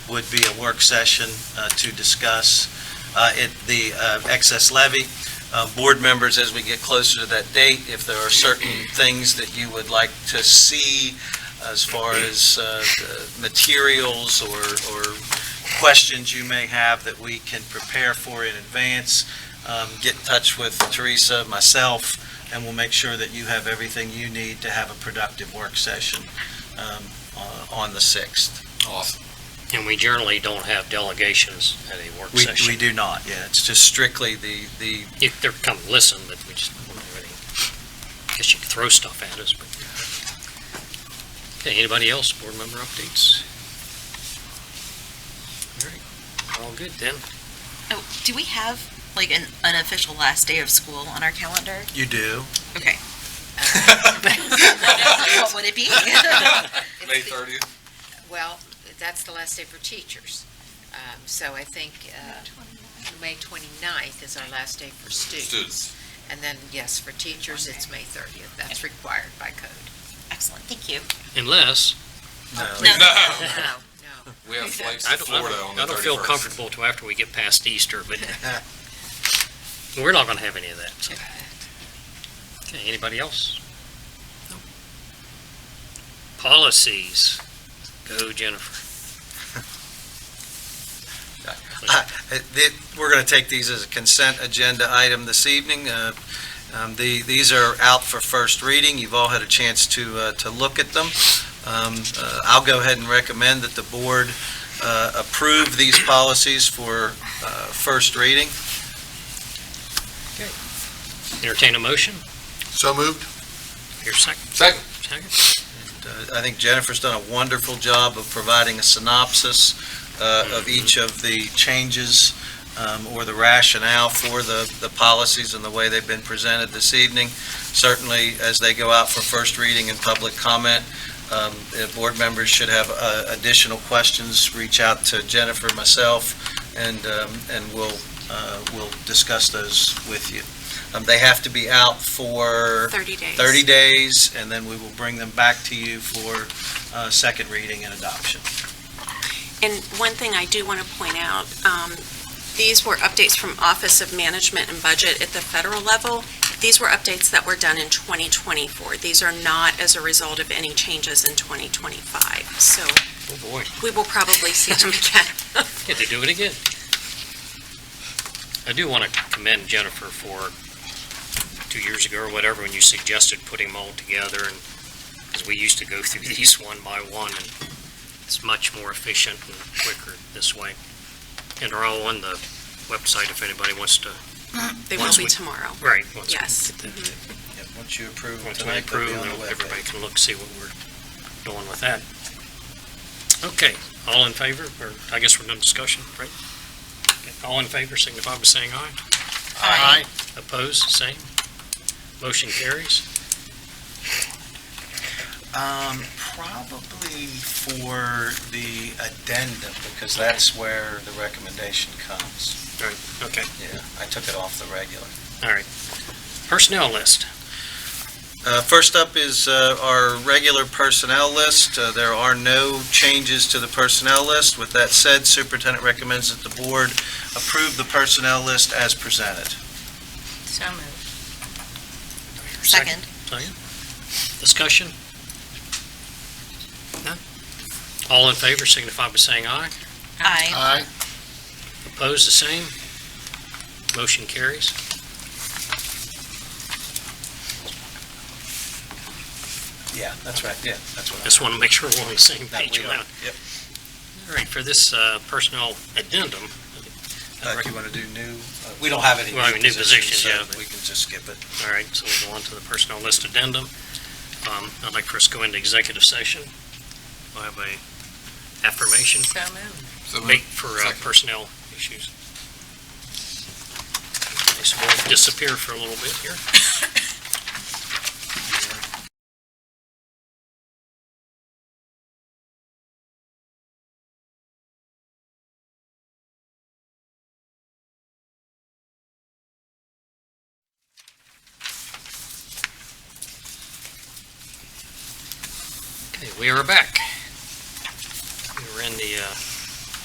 would be a work session uh, to discuss uh, it- the uh, excess levy. Uh, Board members, as we get closer to that date, if there are certain things that you would like to see as far as uh, the materials or or questions you may have that we can prepare for in advance, um, get in touch with Teresa, myself, and we'll make sure that you have everything you need to have a productive work session um, uh, on the 6th. Awesome. And we generally don't have delegations at a work We we session. do not, yeah, it's just strictly the, the If they're come listen, but we just, don't do anything. guess you could throw stuff at us, but. Okay, anybody else, board member updates? All right, all good then. Oh, do we have like an unofficial last day of school on our calendar? You do? Okay. What would it be? It's May the- 30th? Well, that's the last day for teachers. Um, So I think uh, May 29th is our last day for students. Students. And then, yes, for teachers, it's May 30th. That's required by code. Excellent, thank you. Unless, No. No. No, No, no. we have flights I to don't, I Florida don't- on the 31st. I don't feel comfortable till after we get past Easter, but we're not gonna have any of that, so. Okay, anybody else? No. Policies. Go Jennifer. Uh, the- We're going to take these as a consent agenda item this evening. Uh, um, the- These are out for first reading. You've all had a chance to, uh, to look at them. Um, uh, I'll go ahead and recommend that the board uh, approve these policies for uh, first reading. Entertain a motion? So moved. Your second, Second. second? Uh, I think Jennifer's done a wonderful job of providing a synopsis uh, of each of the changes um, or the rationale for the, the policies and the way they've been presented this evening. Certainly, as they go out for first reading and public comment, um, if board members should have uh, additional questions, reach out to Jennifer, myself, and, um, and we'll, uh, we'll discuss those with you. Um, They have to be out for 30 days. 30 days, and then we will bring them back to you for uh, second reading and adoption. And one thing I do want to point out, um, these were updates from Office of Management and Budget at the federal level. These were updates that were done in 2024. These are not as a result of any changes in 2025. So Oh, boy. we will probably see them again. Yeah, they do it again. I do want to commend Jennifer for two years ago or whatever, when you suggested putting them all together and, because we used to go through these one by one and it's much more efficient and quicker this way. And they're all on the website if anybody wants to, They will Once be we- tomorrow. right, once we Yes. Yep, Once you approve them Once we tonight, they'll approve, be on the then everybody webpage. can look, see what we're doing with that. Okay, all in favor, or I guess we're done discussion, right? Okay, All in favor, signify by saying aye. Aye. Opposed, same. Motion carries. Um, Probably for the addendum, because that's where the recommendation comes. All right, okay, Yeah, I took it off the regular. all right. Personnel list. Uh, First up is uh, our regular personnel list. Uh, There are no changes to the personnel list. With that said, superintendent recommends that the board approve the personnel list as presented. So moved. Second. Second. Discussion? None? All in favor, signify by saying aye. Aye. Aye. Opposed, the same. Motion carries. Yeah, that's right, yeah, that's what I... Just want to make sure we're on the same That page. we on are, that. yep. All right, for this uh, personnel addendum, Uh, do you want to do new, uh, we don't have any Well, I mean, new new positions, positions, so yeah, but- we can just skip it. all right, so we'll go on to the personnel list addendum. Um, I'd like for us to go into executive session. We'll have a affirmation, So moved. So moved. wait for uh, Second. personnel issues. Okay, So we'll disappear for a little bit here. Okay, we are back. We were in the uh,